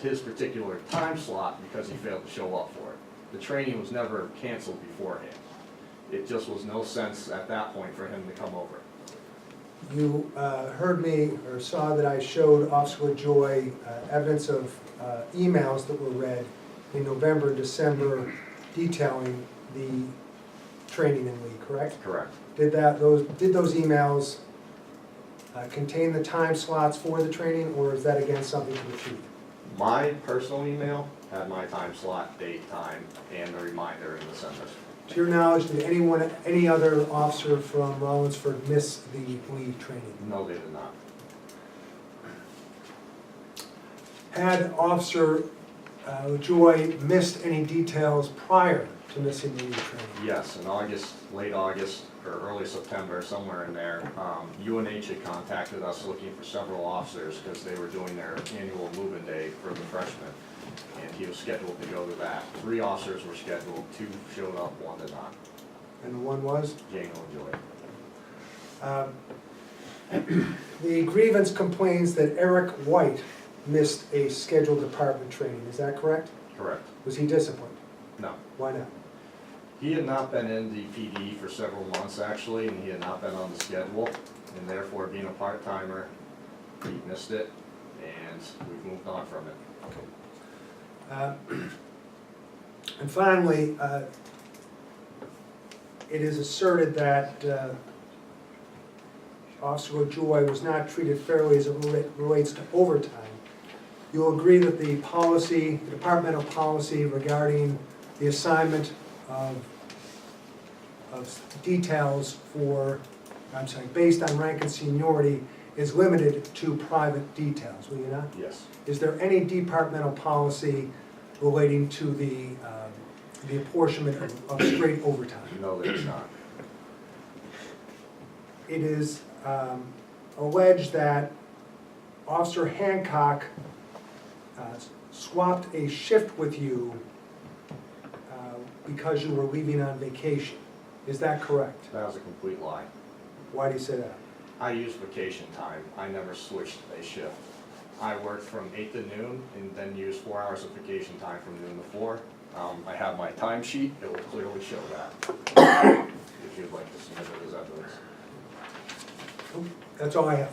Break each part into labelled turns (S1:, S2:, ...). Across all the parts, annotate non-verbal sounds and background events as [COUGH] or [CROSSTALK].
S1: his particular time slot because he failed to show up for it. The training was never canceled beforehand. It just was no sense at that point for him to come over.
S2: You uh, heard me or saw that I showed Officer Joy uh, evidence of uh, emails that were read in November, and December detailing the training in Lee, correct?
S1: Correct.
S2: Did that, those, did those emails uh, contain the time slots for the training, or is that again something to the chief?
S1: My personal email had my time slot, date, time, and a reminder in the sender.
S2: To your knowledge, did anyone, any other officer from Rollinsford miss the Lee training?
S1: No, they did not.
S2: Had Officer uh, Joy missed any details prior to missing the leave training?
S1: Yes, in August, late August, or early September, somewhere in there, um, UNH had contacted us looking for several officers because they were doing their annual move-in day for the freshmen. And he was scheduled to go to that. Three officers were scheduled, two showed up, one did not.
S2: And the one was?
S1: Jane Joy.
S2: um, [CLEARS THROAT] The grievance complains that Eric White missed a scheduled department training, is that correct?
S1: Correct.
S2: Was he disciplined?
S1: No.
S2: Why not?
S1: He had not been in the PD for several months, actually, and he had not been on the schedule, and therefore, being a part-timer, he missed it, and we've moved on from it.
S2: Uh, [CLEARS THROAT] And finally, uh, it is asserted that uh, Officer Joy was not treated fairly as it rela- relates to overtime. You'll agree that the policy, the departmental policy regarding the assignment of, of details for, I'm sorry, based on rank and seniority is limited to private details, will you not?
S1: Yes.
S2: Is there any departmental policy relating to the, um, the apportionment of- of straight overtime?
S1: No, there's not.
S2: It is um, alleged that Officer Hancock uh, swapped a shift with you uh, because you were leaving on vacation. Is that correct?
S1: That was a complete lie.
S2: Why do you say that?
S1: I used vacation time, I never switched a shift. I worked from eight to noon and then used four hours of vacation time from noon to four. Um, I have my time sheet, it will clearly show that. If you'd like to submit it as evidence.
S2: That's all I have.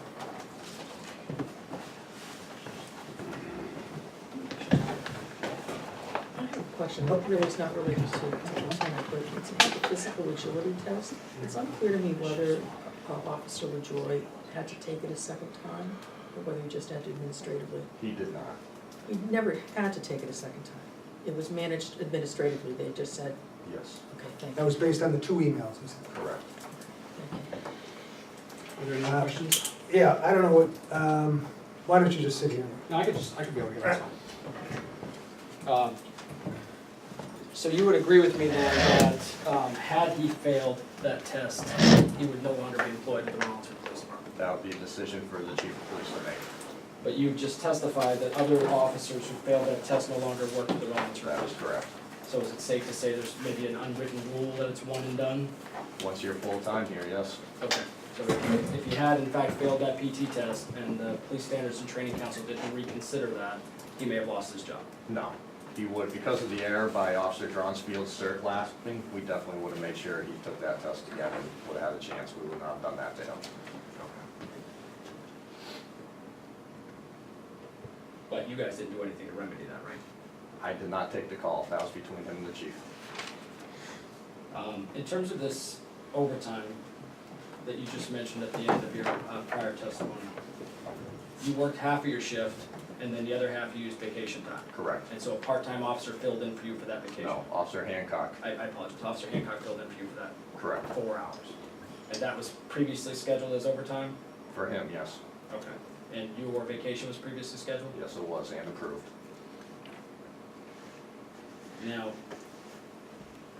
S3: I have a question, but really it's not related to Lieutenant, but it's about the physical agility test. It's unclear to me whether uh, Officer LaJoy had to take it a second time, or whether he just had to administratively.
S1: He did not.
S3: He never had to take it a second time. It was managed administratively, they just said,
S1: Yes,
S3: okay, thank
S2: That
S3: you,
S2: was based on the two emails. is it?
S1: correct.
S3: thank you.
S2: Are there any questions? Yeah, I don't know what, um, why don't you just sit here?
S4: No, I could just, I could be over here, that's fine. Um, So you would agree with me then that um, had he failed that test, he would no longer be employed at the Rollinsford Police Department?
S1: That would be a decision for the chief of police to make.
S4: But you just testified that other officers who failed that test no longer work for the Rollinsford.
S1: That is correct.
S4: So is it safe to say there's maybe an unwritten rule that it's one and done?
S1: Once you're full-time here, yes,
S4: Okay, so if- if he had in fact failed that PT test and the Police Standards and Training Council didn't reconsider that, he may have lost his job.
S1: no. He would, because of the error by Officer Dronsfield's cert lasting, we definitely would have made sure he took that test again and would have had a chance. We would not have done that to him.
S4: But you guys didn't do anything to remedy that, right?
S1: I did not take the call. That was between him and the chief.
S4: Um, in terms of this overtime that you just mentioned at the end of your, uh, prior testimony, you worked half of your shift and then the other half you used vacation time.
S1: Correct.
S4: And so a part-time officer filled in for you for that vacation.
S1: No, Officer Hancock,
S4: I, I apologize, Officer Hancock filled in for you for that
S1: correct.
S4: four hours. And that was previously scheduled as overtime?
S1: For him, yes.
S4: Okay. And your vacation was previously scheduled?
S1: Yes, it was, and approved.
S4: Now,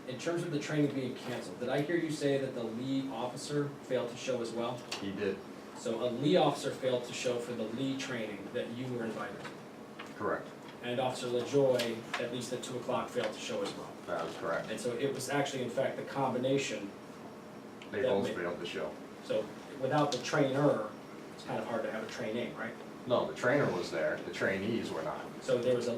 S4: in terms of the training being canceled, did I hear you say that the lead officer failed to show as well?
S1: He did,
S4: So a Lee officer failed to show for the Lee training that you were invited,
S1: correct.
S4: and Officer LaJoy, at least at two o'clock, failed to show as well.
S1: That is correct.
S4: And so it was actually, in fact, the combination,
S1: They both failed the show.
S4: so without the trainer, it's kind of hard to have a trainee, right?
S1: No, the trainer was there, the trainees were not.
S4: So there was a